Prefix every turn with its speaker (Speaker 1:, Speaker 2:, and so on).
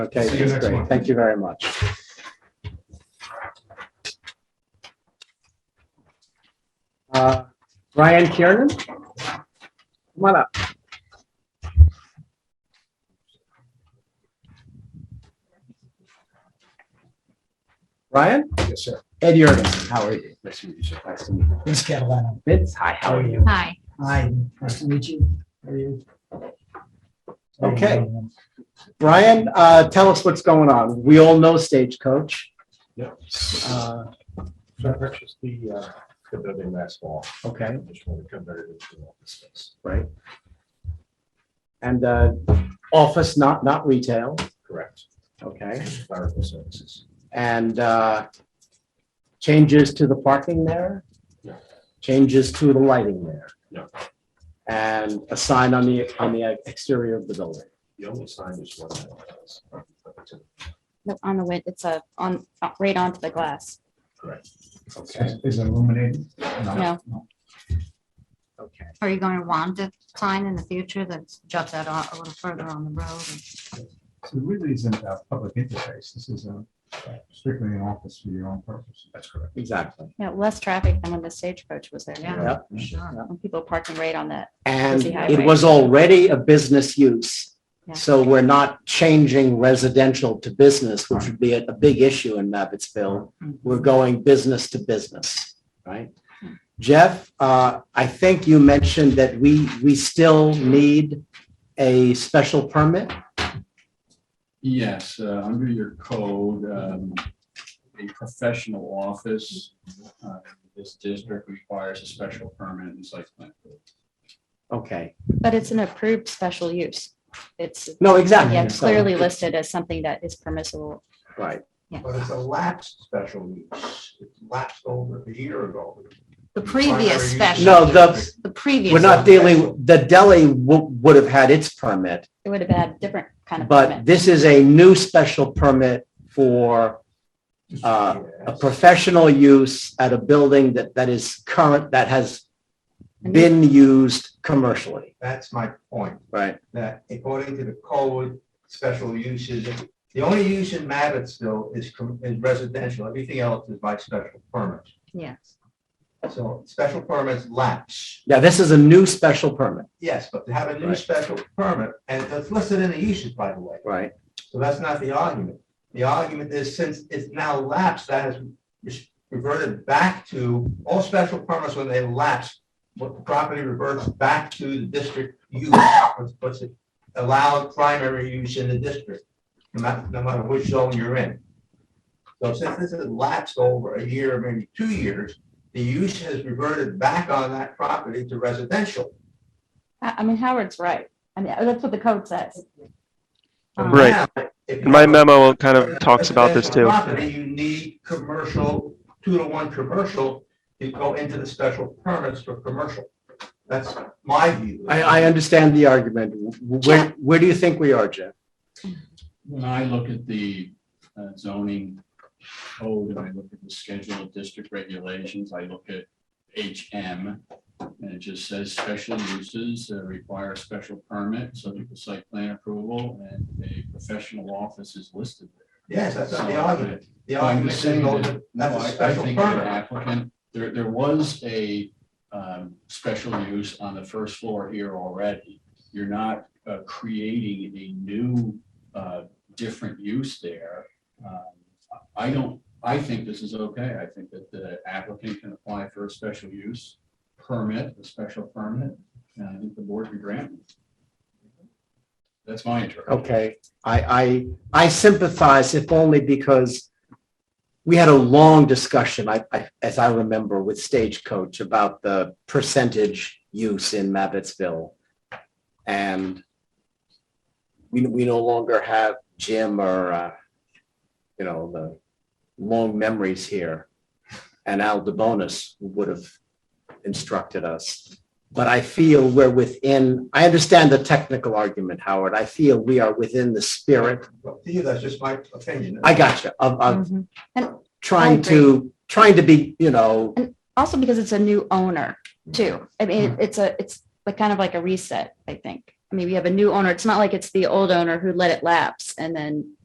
Speaker 1: Okay,
Speaker 2: See you
Speaker 1: that's
Speaker 2: next
Speaker 1: great.
Speaker 2: month.
Speaker 1: Thank you very much. Uh, Ryan Kiernan? Come on up. Ryan?
Speaker 2: Yes, sir.
Speaker 1: Ed Yurgen, how are you? Nice to meet you. Nice to meet you.
Speaker 3: Vince Catalano.
Speaker 1: Vince, hi, how are you?
Speaker 4: Hi.
Speaker 3: Hi, nice to meet you. How are you?
Speaker 1: Okay. Brian, uh, tell us what's going on. We all know Stagecoach.
Speaker 2: Yep.
Speaker 1: Uh,
Speaker 2: So I purchased the, uh, the building last fall.
Speaker 1: okay,
Speaker 2: I just want to convert it into office space.
Speaker 1: right. And, uh, office, not, not retail,
Speaker 2: Correct.
Speaker 1: okay?
Speaker 2: Clerical services.
Speaker 1: And, uh, changes to the parking there?
Speaker 2: No.
Speaker 1: Changes to the lighting there?
Speaker 2: No.
Speaker 1: And a sign on the, on the exterior of the building?
Speaker 2: The only sign is one. that is-
Speaker 4: Look, On the wit, it's a, on, uh, right onto the glass.
Speaker 2: Correct.
Speaker 1: Okay,
Speaker 3: Is it illuminated?
Speaker 4: No.
Speaker 1: okay.
Speaker 5: Are you going to want a sign in the future that juts out a a little further on the road?
Speaker 6: So it really isn't a public interface. This is a strictly an office for your own purpose.
Speaker 2: That's correct.
Speaker 1: Exactly.
Speaker 4: Yeah, less traffic than when the stagecoach was there.
Speaker 5: Yeah.
Speaker 1: Yep.
Speaker 5: Sure.
Speaker 4: When people parking right on that.
Speaker 1: And
Speaker 4: Busy
Speaker 1: it
Speaker 4: highway.
Speaker 1: was already a business use.
Speaker 4: Yeah.
Speaker 1: So we're not changing residential to business, which would be a, a big issue in Mabbittsville.
Speaker 4: Mm-hmm.
Speaker 1: We're going business to business, right? Jeff, uh, I think you mentioned that we, we still need a special permit.
Speaker 7: Yes, uh, under your code, um, a professional office, uh, this district requires a special permit and site plan.
Speaker 1: Okay,
Speaker 4: But it's an approved special use. It's,
Speaker 1: no, exactly.
Speaker 4: yeah,
Speaker 1: So-
Speaker 4: clearly listed as something that is permissible.
Speaker 1: Right,
Speaker 2: But it's a lapsed special use. It lapsed over a year ago.
Speaker 5: The previous special.
Speaker 1: No, the-
Speaker 5: use, The previous.
Speaker 1: we're not
Speaker 5: one.
Speaker 1: dealing, the deli wo- would have had its permit.
Speaker 4: It would have had a different kind of
Speaker 1: But
Speaker 4: permit.
Speaker 1: this is a new special permit for uh, a
Speaker 2: Yes.
Speaker 1: professional use at a building that, that is current, that has been used commercially.
Speaker 8: That's my point,
Speaker 1: Right.
Speaker 8: that according to the code, special uses, the only use in Mabbittsville is com- is residential, everything else is by special permit.
Speaker 5: Yes.
Speaker 8: So special permits lapse,
Speaker 1: Yeah, this is a new special permit.
Speaker 8: yes, but to have a new
Speaker 1: Right.
Speaker 8: special permit, and it's listed in the uses, by the way,
Speaker 1: Right.
Speaker 8: so that's not the argument. The argument is since it's now lapsed, that has re- reverted back to, all special permits when they lapse, what property reverts back to the district use, what's- what's it allowed primary use in the district, no matter, no matter which zone you're in. So since this has lapsed over a year, maybe two years, the use has reverted back on that property to residential.
Speaker 4: I, I mean, Howard's right. I mean, that's what the code says.
Speaker 8: But
Speaker 5: Um,
Speaker 9: Right.
Speaker 8: now, if you
Speaker 9: My
Speaker 8: have a-
Speaker 9: memo kind of talks about this
Speaker 8: Residential
Speaker 9: too.
Speaker 8: property, You need commercial, two to one commercial, to go into the special permits for commercial. That's my view.
Speaker 1: I, I understand the argument. Where, where do you think we are, Jeff?
Speaker 7: When I look at the uh, zoning code and I look at the schedule of district regulations, I look at HM. And it just says special uses uh, require a special permit, subject to site plan approval, and a professional office is listed there.
Speaker 8: Yes, that's not the
Speaker 7: So,
Speaker 8: argument. The
Speaker 7: Well, I'm
Speaker 8: argument
Speaker 7: just
Speaker 8: is
Speaker 7: saying
Speaker 8: no,
Speaker 7: that, no,
Speaker 8: that's a
Speaker 7: I, I
Speaker 8: special
Speaker 7: think an
Speaker 8: permit.
Speaker 7: applicant, there, there was a, um, special use on the first floor here already. You're not, uh, creating a new, uh, different use there. Um, I don't, I think this is okay. I think that the applicant can apply for a special use permit, a special permit, and I think the board can grant. it. That's my interpretation.
Speaker 1: Okay, I, I, I sympathize if only because we had a long discussion, I, I, as I remember, with Stagecoach about the percentage use in Mabbittsville. And we, we no longer have Jim or, uh, you know, the long memories here. And Al DeBonis would have instructed us but I feel we're within, I understand the technical argument, Howard. I feel we are within the spirit,
Speaker 8: Well, To you, that's just my opinion.
Speaker 1: I got you, of, of
Speaker 4: Mhm.
Speaker 1: trying to, trying to be, you know,
Speaker 4: Also because it's a new owner too. I mean, it's a, it's like kind of like a reset, I think. I mean, we have a new owner. It's not like it's the old owner who let it lapse and then